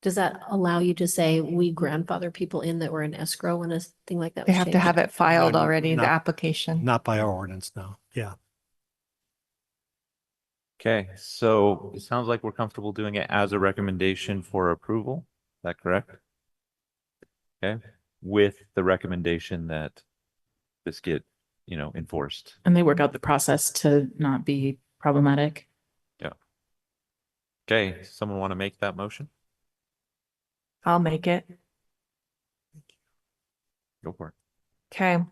Does that allow you to say we grandfather people in that were in escrow when a thing like that? They was have to changed? have it filed Not- already, the not- application. Not by our ordinance now. Yeah. Okay, so it sounds like we're comfortable doing it as a recommendation for approval. Is that correct? Okay, with the recommendation that this get, you know, enforced. And they work out the process to not be problematic. Okay, someone want to make that motion? I'll make it. Go for it. Okay.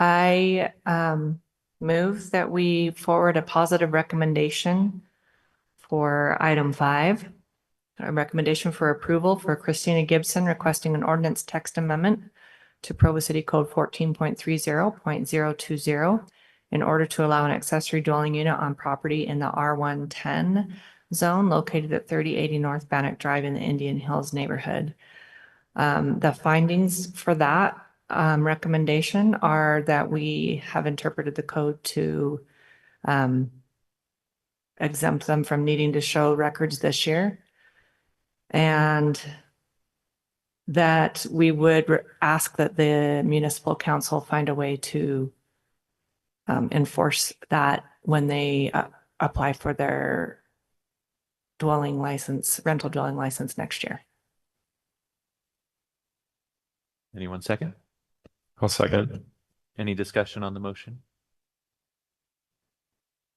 I um move that we forward a positive recommendation for item five. A recommendation for approval for Christina Gibson requesting an ordinance text amendment to Provo City Code fourteen point three zero point zero two zero in order to allow an accessory dwelling unit on property in the R one ten zone located at thirty eighty North Bannock Drive in the Indian Hills neighborhood. Um, the findings for that um, recommendation are that we have interpreted the code to um, exempt them from needing to show records this year. And that we would re- ask that the municipal council find a way to um, enforce that when they uh, apply for their dwelling license, rental dwelling license next year. Anyone second? I'll second. Any discussion on the motion?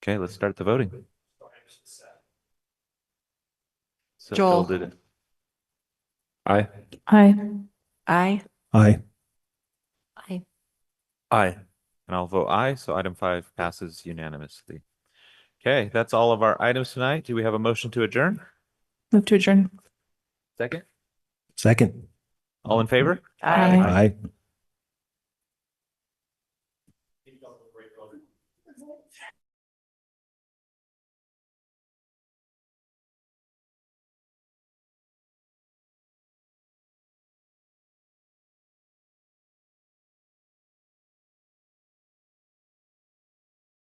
Okay, let's start the voting. So Joel. did it. Aye. Hi. Aye. Aye. I- Aye. And I'll vote aye, so item five passes unanimously. Okay, that's all of our items tonight. Do we have a motion to adjourn? Move to adjourn. Second. Second. All in favor? Aye. Aye.